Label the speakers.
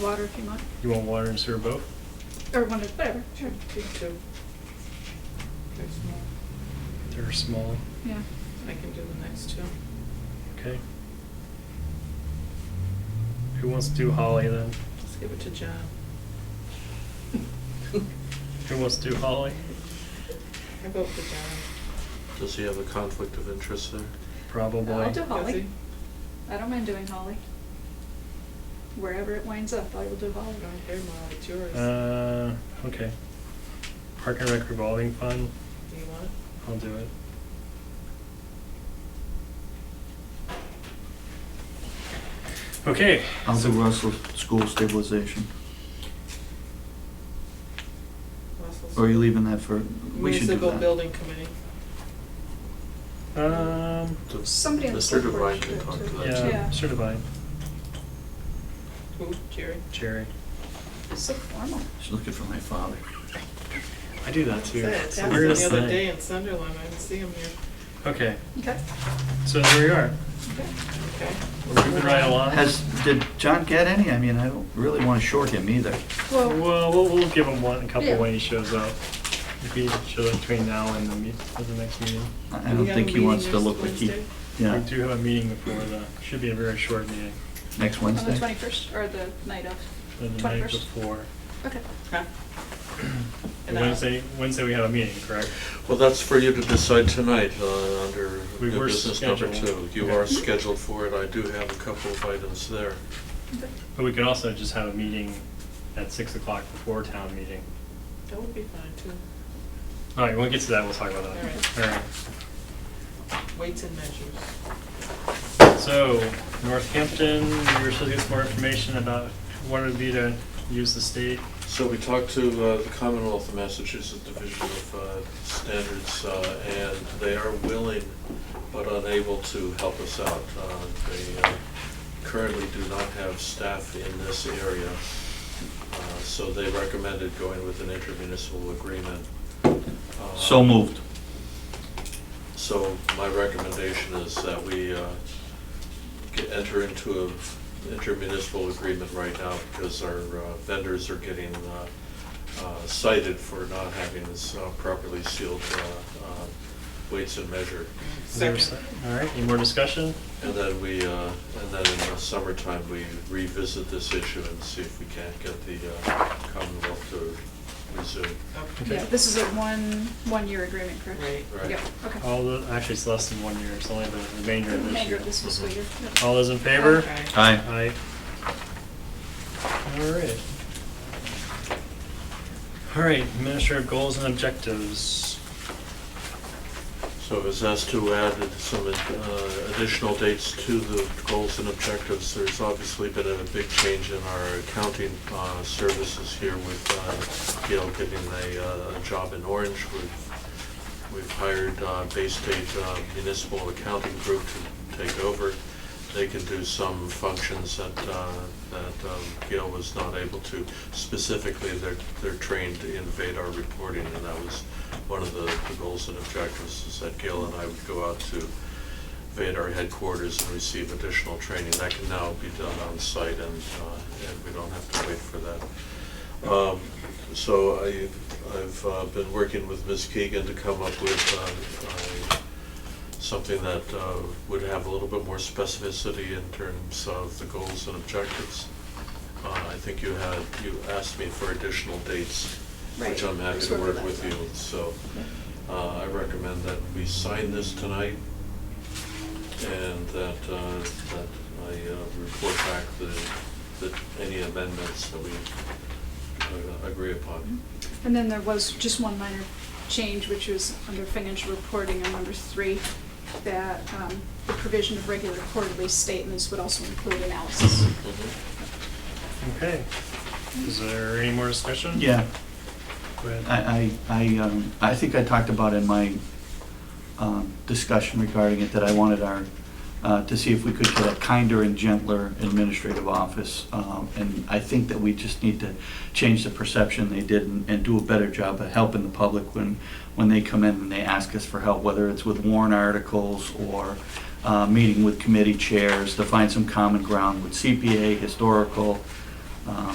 Speaker 1: water if you want,
Speaker 2: You want water and sewer both?
Speaker 1: or one of, whatever, sure,
Speaker 3: Two, two. Very small.
Speaker 2: They're small,
Speaker 1: yeah.
Speaker 3: I can do the next two.
Speaker 2: okay. Who wants to do Holly then?
Speaker 3: Let's give it to John.
Speaker 2: Who wants to do Holly?
Speaker 3: I vote for John.
Speaker 4: Does he have a conflict of interest there?
Speaker 2: Probably.
Speaker 1: I'll do
Speaker 3: Does
Speaker 1: Holly,
Speaker 3: he?
Speaker 1: I don't mind doing Holly. Wherever it winds up, I will do Holly.
Speaker 3: I don't care, Molly, it's yours. Do
Speaker 2: Uh, okay. Park and Rec revolving fund,
Speaker 3: you want it?
Speaker 2: I'll do it. Okay,
Speaker 5: I'll do Russell School Stabilization.
Speaker 3: Russell's-
Speaker 5: Or are you leaving that for, we should do
Speaker 3: Municipal
Speaker 5: that.
Speaker 3: Building Committee.
Speaker 2: um,
Speaker 4: Does-
Speaker 1: Somebody on the
Speaker 4: Mr.
Speaker 1: select board
Speaker 4: Devine
Speaker 1: should
Speaker 4: can
Speaker 1: do
Speaker 4: talk
Speaker 1: it
Speaker 4: to
Speaker 1: too.
Speaker 4: that.
Speaker 2: yeah,
Speaker 1: Yeah.
Speaker 2: certified,
Speaker 3: Who, Jerry?
Speaker 2: Jerry.
Speaker 1: So formal.
Speaker 5: She's looking for my father.
Speaker 2: I do that too.
Speaker 3: Say, it
Speaker 2: It's the
Speaker 3: happened
Speaker 2: weirdest
Speaker 3: the other
Speaker 2: thing.
Speaker 3: day in Sunderland, I didn't see him here.
Speaker 2: Okay,
Speaker 1: Okay,
Speaker 2: so there we are.
Speaker 1: okay.
Speaker 3: Okay.
Speaker 2: We're moving right along.
Speaker 5: Has, did John get any? I mean, I don't really want to short him either.
Speaker 1: Well,
Speaker 2: Well, we'll, we'll give him one, a couple
Speaker 1: Yeah.
Speaker 2: when he shows up. If he shows up between now and the, meet, the next meeting.
Speaker 5: I-
Speaker 3: Do
Speaker 5: I
Speaker 3: we
Speaker 5: don't
Speaker 3: have
Speaker 5: think
Speaker 3: a
Speaker 5: he wants to
Speaker 3: meeting
Speaker 5: look like
Speaker 3: next
Speaker 5: he,
Speaker 3: Wednesday?
Speaker 5: yeah,
Speaker 2: We do have a meeting before the, should be a very short meeting,
Speaker 5: next
Speaker 1: on the
Speaker 5: Wednesday.
Speaker 1: twenty-first, or the night of,
Speaker 2: or the night
Speaker 1: 21st.
Speaker 2: before.
Speaker 1: okay.
Speaker 3: Huh? And uh, I-
Speaker 2: Wednesday, Wednesday we have a meeting, correct?
Speaker 4: Well, that's for you to decide tonight, uh, under
Speaker 2: We
Speaker 4: new
Speaker 2: were
Speaker 4: business number two.
Speaker 2: scheduled.
Speaker 4: You
Speaker 2: Okay.
Speaker 4: are scheduled for it. I do have a couple of items there.
Speaker 1: Okay.
Speaker 2: But we could also just have a meeting at six o'clock before town meeting.
Speaker 3: That would be fine too.
Speaker 2: All right, when we get to that, we'll talk about that. All
Speaker 3: Weights and measures.
Speaker 2: right. So, Northampton, we were supposed to get some more information about what it would be to use the state.
Speaker 4: So we talked to uh, the Commonwealth of Massachusetts Division of uh, Standards, uh, and they are willing but unable to help us out. Uh, They uh, currently do not have staff in this area, uh, so they recommended going with an intermunicipal agreement. Uh,
Speaker 5: So moved.
Speaker 4: so my recommendation is that we uh, get- enter into an intermunicipal agreement right now because our uh, vendors are getting uh, uh, cited for not having this uh, properly sealed uh, uh, weights and measure.
Speaker 2: Is there a
Speaker 3: Second.
Speaker 2: se- All right, any more discussion?
Speaker 4: And then we, uh, and then in the summertime, we revisit this issue and see if we can't get the uh, Commonwealth to resume.
Speaker 3: Okay.
Speaker 1: Yeah, this is a one, one-year agreement, correct?
Speaker 3: Right.
Speaker 4: Right.
Speaker 1: Yeah, okay.
Speaker 2: All the, actually, it's less than one year, it's only the remainder
Speaker 1: The
Speaker 2: of this
Speaker 1: remainder
Speaker 2: year.
Speaker 1: of this fiscal year. yep.
Speaker 2: All those in favor?
Speaker 3: Okay.
Speaker 2: Aye.
Speaker 5: Aye.
Speaker 2: All right. All right, administrative goals and objectives.
Speaker 4: So it was asked to add some uh, additional dates to the goals and objectives. There's obviously been a big change in our accounting uh, services here with uh, Gail getting a uh, job in Orange. We've- We've hired uh, Bay State uh, Municipal Accounting Group to take over. They can do some functions that uh, that um, Gail was not able to. Specifically, they're they're trained in Vadar reporting, and that was one of the, the goals and objectives is that Gail and I would go out to Vadar headquarters and receive additional training. That can now be done on site and, uh, and we don't have to wait for that. Um, so I, I've uh, been working with Ms. Keegan to come up with, uh, a something that uh, would have a little bit more specificity in terms of the goals and objectives. Uh, I think you had, you asked me for additional dates, which
Speaker 1: Right.
Speaker 4: I'm happy
Speaker 1: Just
Speaker 4: to
Speaker 1: work
Speaker 4: work
Speaker 1: with
Speaker 4: with
Speaker 1: that.
Speaker 4: you. So uh, I recommend that we sign this tonight and that, uh, that I uh, report back the, the, any amendments that we uh, agree upon.
Speaker 1: And then there was just one minor change, which was under financial reporting on number three, that um, the provision of regular quarterly statements would also include analysis.
Speaker 2: Okay. Mm-hmm. Is there any more discussion?
Speaker 5: Yeah.
Speaker 2: Go ahead.
Speaker 5: I, I, I, um, I think I talked about in my, um, discussion regarding it, that I wanted our, uh, to see if we could get a kinder and gentler administrative office. Um, and I think that we just need to change the perception they did and, and do a better job of helping the public when, when they come in and they ask us for help, whether it's with warrant articles or, uh, meeting with committee chairs to find some common ground with CPA, historical, um,